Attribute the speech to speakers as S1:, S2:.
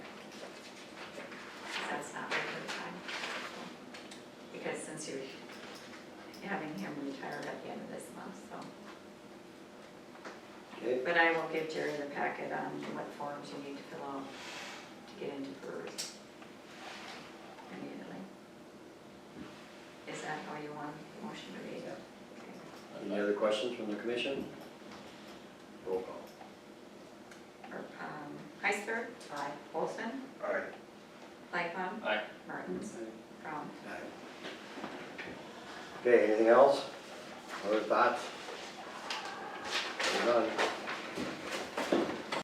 S1: it,
S2: But I will give Jerry the packet on what forms you need to fill out to get into breweries. Immediately. Is that how you want the motion to read?
S1: Yeah.
S2: Okay.
S3: Any other questions from the commission? Roll call.
S2: Or, um, Heister? Aye. Olson?
S3: Aye.
S2: Lightfoot?
S4: Aye.
S2: Martins? Brown?
S3: Okay, anything else? Other thoughts? We're done.